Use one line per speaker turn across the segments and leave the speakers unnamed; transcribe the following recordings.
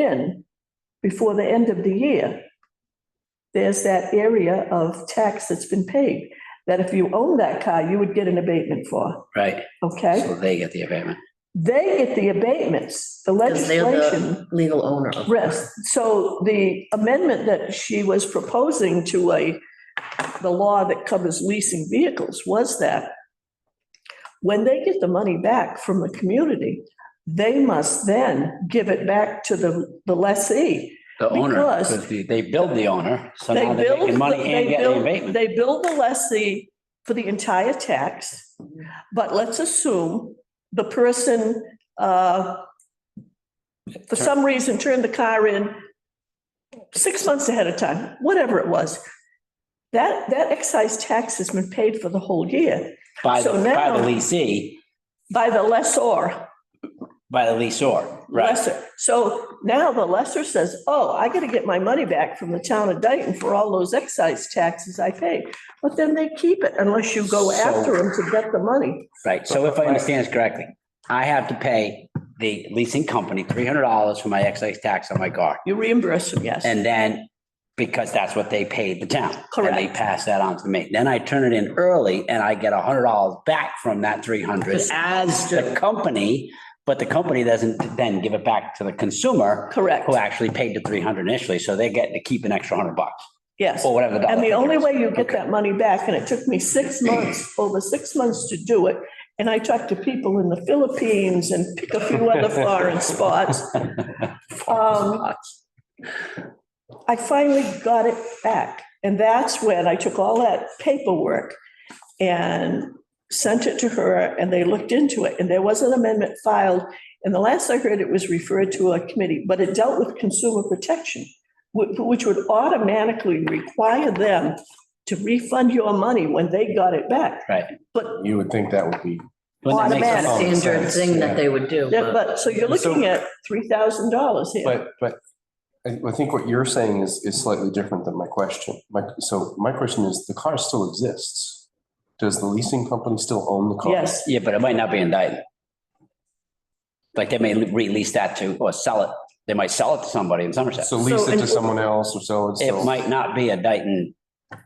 in before the end of the year, there's that area of tax that's been paid, that if you own that car, you would get an abatement for,
right?
okay?
So they get the abatement.
They get the abatements, the
Because they're
legislation.
the legal owner of.
Rest. So the amendment that she was proposing to a, the law that covers leasing vehicles was that when they get the money back from the community, they must then give it back to the, the lessee.
The owner,
Because-
because they they build the owner, so
They
now they're
build
making money and
they
getting the
build-
abatement.
They build the lessee for the entire tax, but let's assume the person, uh, for some reason turned the car in six months ahead of time, whatever it was. That, that excise tax has been paid for the whole year
By the,
so
by the
now-
leasee,
by the lessor,
by the leasor, right?
lesser. So now the lesser says, oh, I gotta get my money back from the town of Dayton for all those excise taxes I paid. But then they keep it unless you go
So-
after them to get the money.
Right. So if I understand this correctly, I have to pay the leasing company $300 for my excise tax on my car.
You reimburse them, yes.
And then, because that's what they paid the town. And they
Correct.
pass that on to me. Then I turn it in early and I get a hundred dollars back from that three hundred as the company. But the company doesn't then give it back to the consumer
Correct,
who actually paid the three hundred initially. So they get to keep an extra hundred bucks
yes.
or whatever. dollar
And the
figure
only
is.
way you get that money back, and it took me six months, over six months to do it, and I talked to people in the Philippines and pick a few other foreign spots. Um, I finally got it back, and that's when I took all that paperwork and sent it to her, and they looked into it, and there was an amendment filed. And the last I heard, it was referred to a committee, but it dealt with consumer protection wh- which would automatically require them to refund your money when they got it back.
Right.
But,
You would think that would be,
Wouldn't that make
A
sense?
Automatic.
standard thing that they would do.
yeah, but, so you're looking at $3,000 here.
but, but I, I think what you're saying is, is slightly different than my question. My, so my question is, the car still exists. Does the leasing company still own the car?
Yes,
Yeah, but it might not be indicted. Like they may release that to, or sell it. They might sell it to somebody in Somerset.
So lease
So
it
in-
to someone else or so and
It
so.
might not be a Dayton.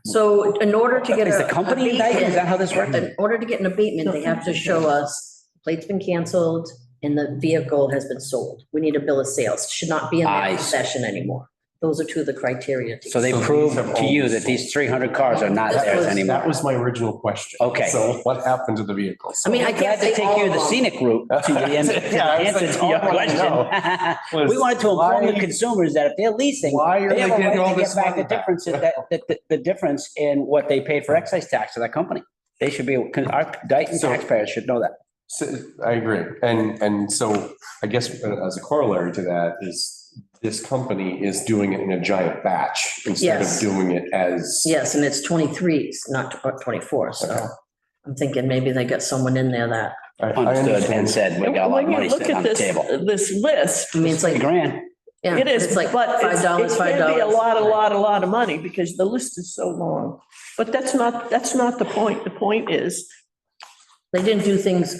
So in order to get.
Is
a-
the company
a
indicted? Is that how this
abatement-
works?
In order to get an abatement, they have to show us plate's been canceled and the vehicle has been sold. We need a bill of sales. Should not be in
I
their
see.
possession anymore. Those are two of the criteria. to-
So they
So these
prove
have
to
all
you
been
that these three hundred cars are not
That
theirs
was-
anymore.
That was my original question.
Okay.
So what happened to the vehicle?
I mean, I
Glad
can't
to
say
take
all
you
of
the
them.
scenic route to the end- to the
Yeah, I was
answer
like,
to
all
your
I wanna
question.
Was-
We wanted to inform the
Why-
consumers that if they're leasing,
Why are
they
they
have a
getting all
right to
this
get back
money
the
back?
difference, in that, that- the, the difference in what they paid for excise tax to that company. They should be, 'cause our Dayton
So-
taxpayers should know that.
So, I agree. And, and so I guess uh, as a corollary to that is this company is doing it in a giant batch instead of
Yes.
doing it as.
Yes, and it's 23s, not tw- 24,
Okay.
so I'm thinking maybe they got someone in there that,
I- I
Understood
understand.
and said, we got a lot of
when you
money
look
sitting
at
on the
this,
table.
this list,
I mean, it's
Three
like,
grand.
yeah.
it is,
It's like
but it's-
$5,
it can be a
$5.
lot, a lot, a lot of money because the list is so long. But that's not, that's not the point. The point is,
They didn't do things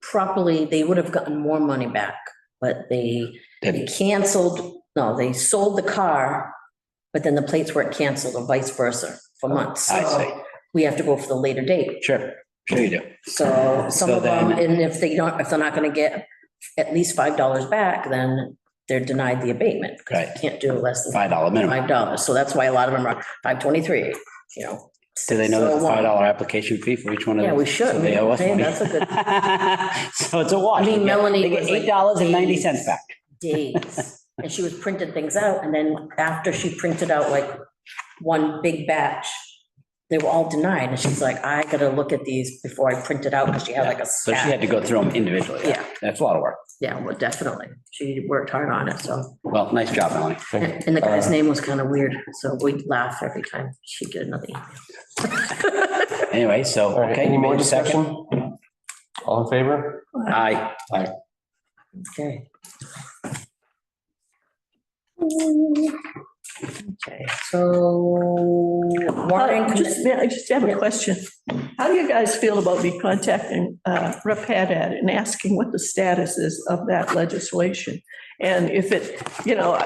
properly, they would have gotten more money back, but they they
Didn't.
canceled, no, they sold the car, but then the plates weren't canceled or vice versa for months.
Oh, I see.
We have to go for the later date.
Sure, sure you do.
So some
So
of them,
then-
and if they don't, if they're not going to get at least $5 back, then they're denied the abatement because
Right.
you can't do less than
Five dollar minimum.
five dollars, so that's why a lot of them are five twenty-three, you know.
Do they know there's a
So, um,
five dollar application fee for each one of
Yeah,
them?
we should.
So they owe us
Hey,
money.
that's a good-
So it's a wash.
I mean,
They get-
Melanie
They get
was like-
eight dollars and ninety cents back.
Days, and she was printing things out, and then after she printed out like one big batch, they were all denied, and she's like, I gotta look at these before I print it out, because she had like a
So she had
stack.
to go through them individually.
Yeah.
That's a lot of work.
Yeah, well, definitely, she worked hard on it, so,
Well, nice job, Melanie.
Thank you.
and and the guy's
Uh,
name was kind of weird, so we'd laugh every time she did another email.
Anyway, so,
All right,
okay.
any more
wait a second.
discussion? All in favor?
Aye.
Okay. Okay, so.
I
warrant-
Uh, just, I just have a question. How do you guys feel about me contacting uh, Rep. Haddad and asking what the status is of that legislation? And if it, you know,